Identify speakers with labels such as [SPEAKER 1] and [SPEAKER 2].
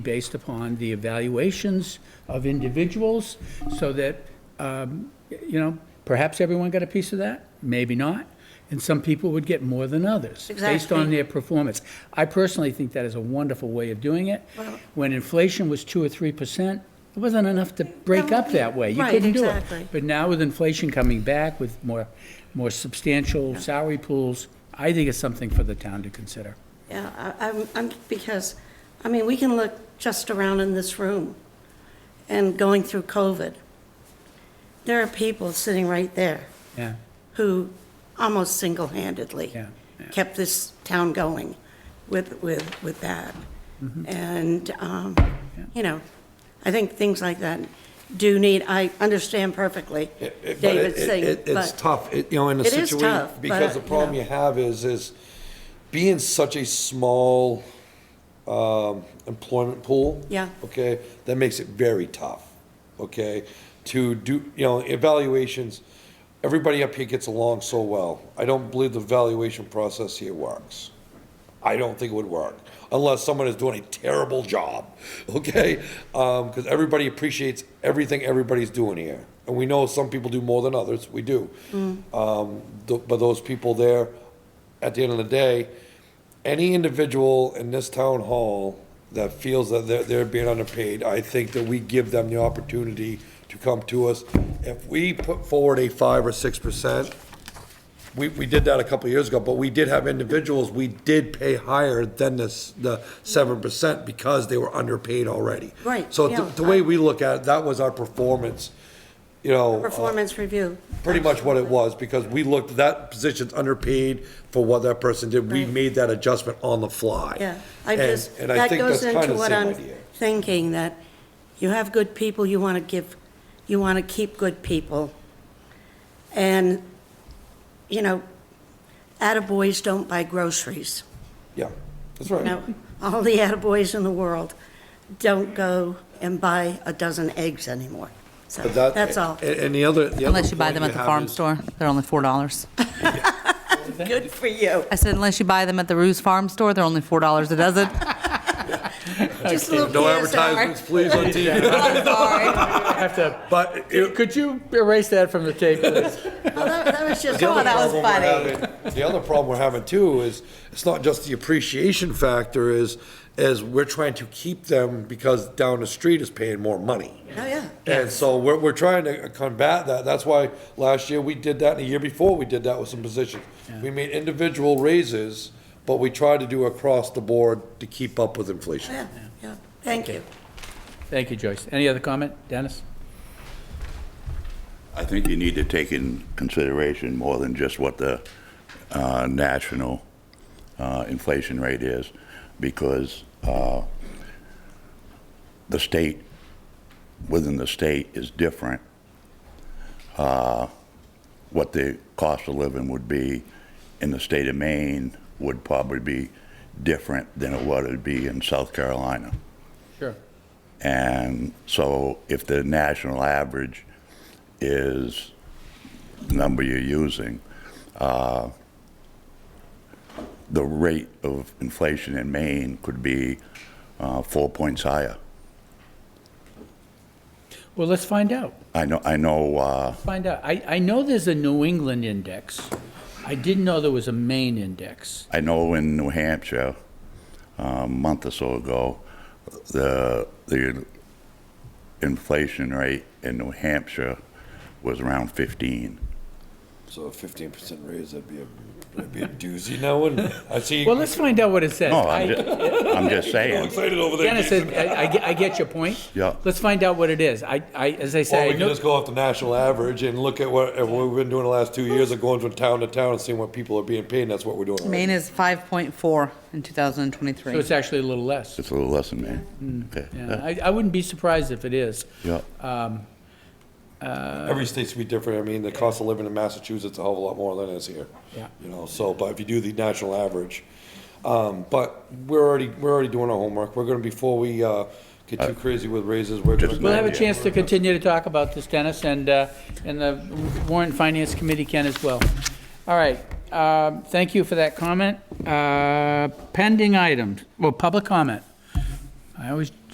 [SPEAKER 1] based upon the evaluations of individuals, so that, um, you know, perhaps everyone got a piece of that, maybe not, and some people would get more than others, based on
[SPEAKER 2] Exactly.
[SPEAKER 1] their performance. I personally think that is a wonderful way of doing it. When inflation was 2 or 3%, it wasn't enough to break up that way. You
[SPEAKER 2] Right,
[SPEAKER 1] couldn't do it.
[SPEAKER 2] exactly.
[SPEAKER 1] But now with inflation coming back with more, more substantial salary pools, I think it's something for the town to consider.
[SPEAKER 2] Yeah, I- I'm, I'm, because, I mean, we can look just around in this room and going through COVID. There are people sitting right there
[SPEAKER 1] Yeah,
[SPEAKER 2] who almost single-handedly
[SPEAKER 1] Yeah, yeah.
[SPEAKER 2] kept this town going with, with, with that.
[SPEAKER 1] Mm-hmm.
[SPEAKER 2] And, um, you know, I think things like that do need, I understand perfectly
[SPEAKER 3] It- but
[SPEAKER 2] David's
[SPEAKER 3] it-
[SPEAKER 2] thing,
[SPEAKER 3] it- It's
[SPEAKER 2] but
[SPEAKER 3] tough, It- you know, in a
[SPEAKER 2] It is
[SPEAKER 3] situation,
[SPEAKER 2] tough, but,
[SPEAKER 3] because the
[SPEAKER 2] you
[SPEAKER 3] problem
[SPEAKER 2] know.
[SPEAKER 3] you have is, is being such a small, um, employment pool.
[SPEAKER 2] Yeah.
[SPEAKER 3] Okay, that makes it very tough, okay? To do, you know, evaluations, everybody up here gets along so well. I don't believe the valuation process here works. I don't think it would work unless someone is doing a terrible job, okay? Because everybody appreciates everything everybody's doing here. And we know some people do more than others, we do. Um, th- But those people there, at the end of the day, any individual in this town hall that feels that they're, they're being underpaid, I think that we give them the opportunity to come to us. If we put forward a five or six percent, we, we did that a couple of years ago, but we did have individuals, we did pay higher than this, the seven percent because they were underpaid already.
[SPEAKER 2] Right,
[SPEAKER 3] So
[SPEAKER 2] yeah.
[SPEAKER 3] th- the way we look at it, that was our performance, you know. uh,
[SPEAKER 2] performance review.
[SPEAKER 3] pretty much what it was, because we looked, that position's underpaid for what that person did. We
[SPEAKER 2] Right.
[SPEAKER 3] made that adjustment on the fly.
[SPEAKER 2] Yeah, I
[SPEAKER 3] And-
[SPEAKER 2] just,
[SPEAKER 3] and I
[SPEAKER 2] that
[SPEAKER 3] think
[SPEAKER 2] goes
[SPEAKER 3] that's kinda
[SPEAKER 2] into
[SPEAKER 3] the
[SPEAKER 2] what
[SPEAKER 3] same
[SPEAKER 2] I'm
[SPEAKER 3] idea.
[SPEAKER 2] thinking, that you have good people, you want to give, you want to keep good people. And, you know, attaboys don't buy groceries.
[SPEAKER 3] Yeah, that's right.
[SPEAKER 2] Now, all the attaboys in the world don't go and buy a dozen eggs anymore. So
[SPEAKER 3] But that-
[SPEAKER 2] that's all.
[SPEAKER 3] And, and the other, the other.
[SPEAKER 4] Unless you buy
[SPEAKER 3] point
[SPEAKER 4] them at the
[SPEAKER 3] have
[SPEAKER 4] farm
[SPEAKER 3] is-
[SPEAKER 4] store, they're only four dollars.
[SPEAKER 2] Good for you.
[SPEAKER 4] I said unless you buy them at the Ruse Farm Store, they're only four dollars a dozen.
[SPEAKER 2] Just a little
[SPEAKER 3] No
[SPEAKER 2] PSR.
[SPEAKER 3] advertisements, please, on TV.
[SPEAKER 1] Have to,
[SPEAKER 3] But it,
[SPEAKER 1] could you erase that from the tape, please?
[SPEAKER 2] Well, that that was just.
[SPEAKER 3] The other
[SPEAKER 4] that was
[SPEAKER 3] problem we're
[SPEAKER 4] funny.
[SPEAKER 3] having- The other problem we're having too is, it's not just the appreciation factor is, is we're trying to keep them because down the street is paying more money.
[SPEAKER 2] Oh, yeah.
[SPEAKER 3] And so we're, we're trying to combat that. That's why last year we did that, and the year before we did that with some positions. We made individual raises, but we tried to do across the board to keep up with inflation.
[SPEAKER 2] Yeah, yeah. Thank you.
[SPEAKER 1] Thank you, Joyce. Any other comment? Dennis?
[SPEAKER 5] I think you need to take in consideration more than just what the uh, national uh, inflation rate is, because uh, the state, within the state, is different. Uh, What the cost of living would be in the state of Maine would probably be different than what it would be in South Carolina.
[SPEAKER 1] Sure.
[SPEAKER 5] And so if the national average is the number you're using, uh, the rate of inflation in Maine could be uh, four points higher.
[SPEAKER 1] Well, let's find out.
[SPEAKER 5] I know, I know, uh,
[SPEAKER 1] Find out. I, I know there's a New England index. I didn't know there was a Maine index.
[SPEAKER 5] I know in New Hampshire, uh, a month or so ago, the, the inflation rate in New Hampshire was around 15.
[SPEAKER 3] So a fifteen percent raise, that'd be a, that'd be a doozy now, and I see
[SPEAKER 1] Well,
[SPEAKER 3] you
[SPEAKER 1] let's find out what it says.
[SPEAKER 5] No,
[SPEAKER 1] I-
[SPEAKER 5] I'm just, I'm just saying.
[SPEAKER 3] excited over there.
[SPEAKER 1] Dennis,
[SPEAKER 3] Jason.
[SPEAKER 1] I, I get- I get your point.
[SPEAKER 5] Yeah.
[SPEAKER 1] Let's find out what it is. I, I, as I
[SPEAKER 3] Or
[SPEAKER 1] say,
[SPEAKER 3] we
[SPEAKER 1] I
[SPEAKER 3] can
[SPEAKER 1] know-
[SPEAKER 3] just go off the national average and look at what, at what we've been doing the last two years of going from town to town and seeing what people are being paid, and that's what we're doing. right
[SPEAKER 4] Maine
[SPEAKER 3] now.
[SPEAKER 4] is five point four in two thousand and
[SPEAKER 1] so
[SPEAKER 4] twenty-three.
[SPEAKER 1] it's actually a little less.
[SPEAKER 5] It's a little less than that. Okay.
[SPEAKER 1] Yeah, I, I wouldn't be surprised if it is.
[SPEAKER 5] Yeah.
[SPEAKER 3] Every state's be different. I mean, the cost of living in Massachusetts is a hell of a lot more than it is here.
[SPEAKER 1] Yeah.
[SPEAKER 3] You know, so, but if you do the national average, um, but we're already, we're already doing our homework. We're gonna, before we, uh, get too crazy with raises, we're gonna.
[SPEAKER 5] Just
[SPEAKER 1] We'll
[SPEAKER 3] go-
[SPEAKER 1] have a chance to continue to talk about this, Dennis, and, uh, and the Warren Finance Committee can as well. All right, um, thank you for that comment. Uh, Pending items, well, public comment. I always